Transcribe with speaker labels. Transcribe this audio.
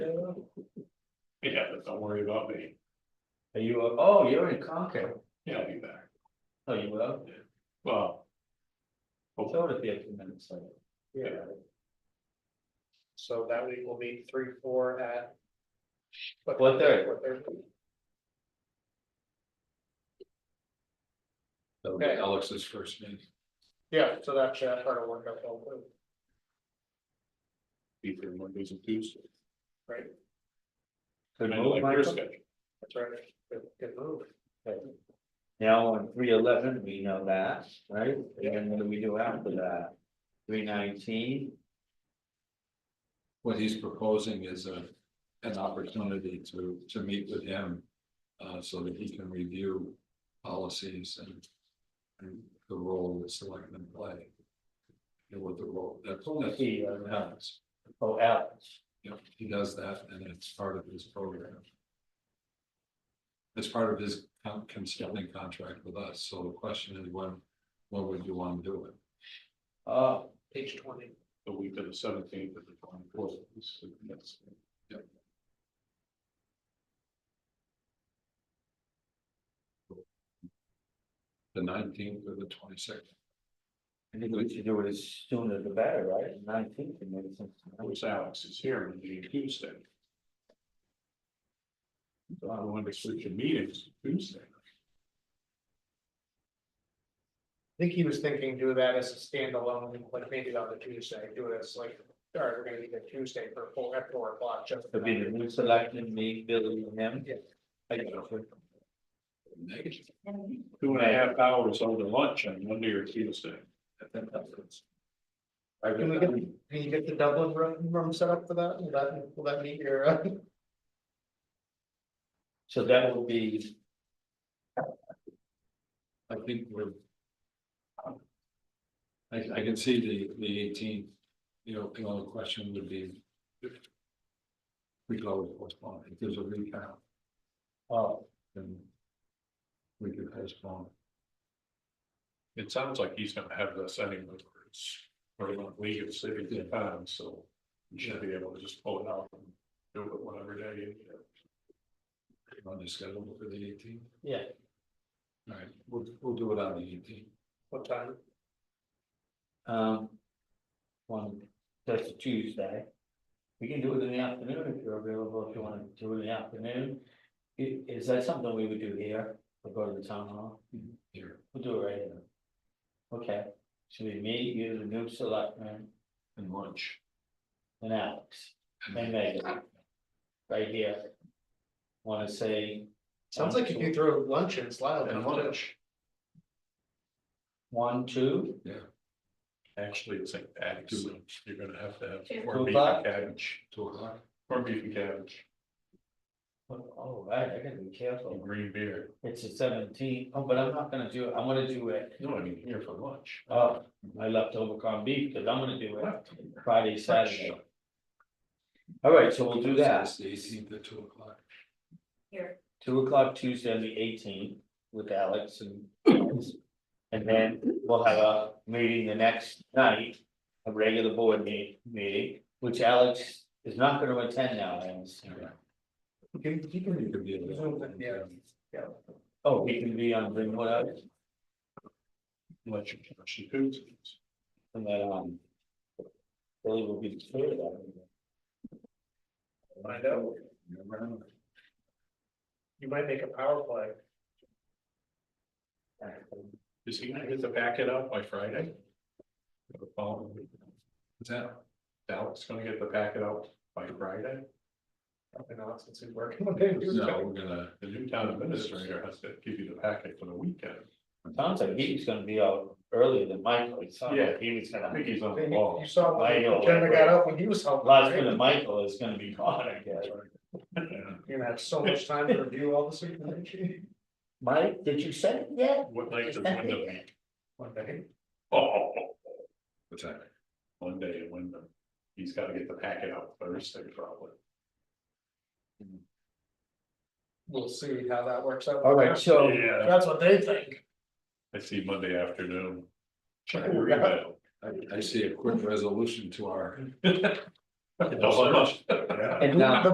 Speaker 1: worry about me,
Speaker 2: Are you, oh, you're in Concord,
Speaker 1: yeah, I'll be back,
Speaker 2: oh, you will,
Speaker 1: well, oh.
Speaker 2: so it'll be a few minutes later.
Speaker 1: Yeah.
Speaker 3: So that week will be three, four at.
Speaker 2: What day?
Speaker 3: What day?
Speaker 4: That'll be
Speaker 3: Okay.
Speaker 4: Alex's first meeting.
Speaker 3: Yeah, so that should try to work out well,
Speaker 1: be there Mondays and Tuesdays.
Speaker 3: right?
Speaker 2: Could
Speaker 1: I like
Speaker 2: move,
Speaker 1: your
Speaker 2: Michael?
Speaker 1: schedule.
Speaker 3: That's right. Good, good move.
Speaker 2: Now, on three eleven, we know that, right, and then what do we do after that? Three nineteen,
Speaker 4: What he's proposing is a, an opportunity to, to meet with him. Uh, so that he can review policies and. And the role that selectmen play. And what the role, that's, that's
Speaker 2: He, uh,
Speaker 4: what happens.
Speaker 2: oh, Alex,
Speaker 4: Yep, he does that and it's part of his program. It's part of his con- consulting contract with us, so the question is when, when would you want to do it?
Speaker 2: oh,
Speaker 3: Uh, Page twenty.
Speaker 1: The week of the seventeenth of the twenty fourth, that's,
Speaker 4: The nineteenth or the twenty-sixth?
Speaker 2: I think we should do it as soon as the better, right, nineteen, maybe some.
Speaker 1: which Alex is here, Monday and Tuesday. So I wanted to switch your meetings to Tuesday,
Speaker 3: I think he was thinking do that as a standalone, like maybe on the Tuesday, do it as like, all right, we're gonna meet the Tuesday for four, at four o'clock, just. for
Speaker 2: It'll be the
Speaker 3: that.
Speaker 2: new selectmen, me, Billy, and him.
Speaker 3: Yeah.
Speaker 2: I got you.
Speaker 4: Negative.
Speaker 1: two and a half hours over lunch on Monday or Tuesday.
Speaker 2: I
Speaker 3: Can we
Speaker 2: got-
Speaker 3: get, can you get the Dublin room, room set up for that? Will that, will that meet your, uh,
Speaker 2: So that will be,
Speaker 4: I think we're. I, I can see the, the eighteen, you know, the only question would be. if We could always postpone, if there's a recount,
Speaker 2: oh,
Speaker 4: then. We could postpone,
Speaker 1: It sounds like he's gonna have this anyway, where it's, we're gonna leave it sitting in time, so you should be able to just pull it out. and Do it whatever day, you know.
Speaker 4: on the schedule for the eighteen,
Speaker 2: yeah,
Speaker 4: alright, we'll, we'll do it on the eighteen.
Speaker 3: what time?
Speaker 2: um. One, that's a Tuesday. We can do it in the afternoon if you're available, if you wanna do it in the afternoon. I- Is that something we would do here, or go to the town hall?
Speaker 4: Here,
Speaker 2: We'll do it right here. Okay, so we meet you, the new selectman,
Speaker 4: and lunch.
Speaker 2: and Alex, and Megan. Right here. Wanna say
Speaker 3: Sounds like if you throw luncheons loud
Speaker 1: And
Speaker 3: enough to
Speaker 1: lunch,
Speaker 2: one, two?
Speaker 1: actually, it's like that, so you're gonna have to have corned
Speaker 2: Two
Speaker 1: beef and
Speaker 2: o'clock?
Speaker 1: cabbage,
Speaker 4: Two o'clock,
Speaker 1: corned beef and cabbage,
Speaker 2: Oh, right, I gotta be
Speaker 1: and
Speaker 2: careful.
Speaker 1: green beer.
Speaker 2: It's a seventeen. Oh, but I'm not gonna do it. I'm gonna do it.
Speaker 1: No, I mean, here for lunch.
Speaker 2: Oh, I left over corned beef, cause I'm gonna do it Friday, Saturday. All right, so we'll do that.
Speaker 4: It's The eighteenth at two o'clock,
Speaker 2: Two o'clock Tuesday, the eighteenth with Alex and. And then we'll have a meeting the next night, a regular board meeting, meeting, which Alex is not gonna attend now, I understand.
Speaker 4: you can, you can, you can be. available.
Speaker 3: Yeah.
Speaker 2: Oh, he can be on, Zoom, what else?
Speaker 1: Lunch, actually, Tuesdays.
Speaker 2: And then, um. Billy will be the third, I think.
Speaker 3: find out.
Speaker 4: Never know.
Speaker 3: You might make a power play.
Speaker 1: Is he gonna get the packet out by Friday? The following week?
Speaker 4: What's that?
Speaker 1: Alex gonna get the packet out by Friday?
Speaker 3: I've been out since we working on it.
Speaker 4: No, we're gonna.
Speaker 1: The new town administrator has to give you the packet for the weekend.
Speaker 2: Sounds like he was gonna be out earlier than Michael, it sounded like he was
Speaker 1: I
Speaker 2: gonna,
Speaker 1: think he's on the
Speaker 3: You
Speaker 1: ball.
Speaker 3: saw,
Speaker 2: I know,
Speaker 3: when Jenna got up when he was helping.
Speaker 2: last
Speaker 3: right?
Speaker 2: minute Michael is gonna be gone, I guess.
Speaker 3: You're gonna have so much time to review all this information.
Speaker 2: Mike, did you send it yet?
Speaker 1: What night is Wyndham?
Speaker 3: One day.
Speaker 1: Oh,
Speaker 4: What's that?
Speaker 1: Monday in Wyndham. He's gotta get the packet out Thursday probably.
Speaker 3: We'll see how that works out.
Speaker 2: All right, so,
Speaker 1: Yeah,
Speaker 3: That's what they think.
Speaker 1: I see Monday afternoon. Check your
Speaker 3: Yeah.
Speaker 1: email.
Speaker 4: I, I see a quick resolution to our
Speaker 1: Don't-
Speaker 2: and now.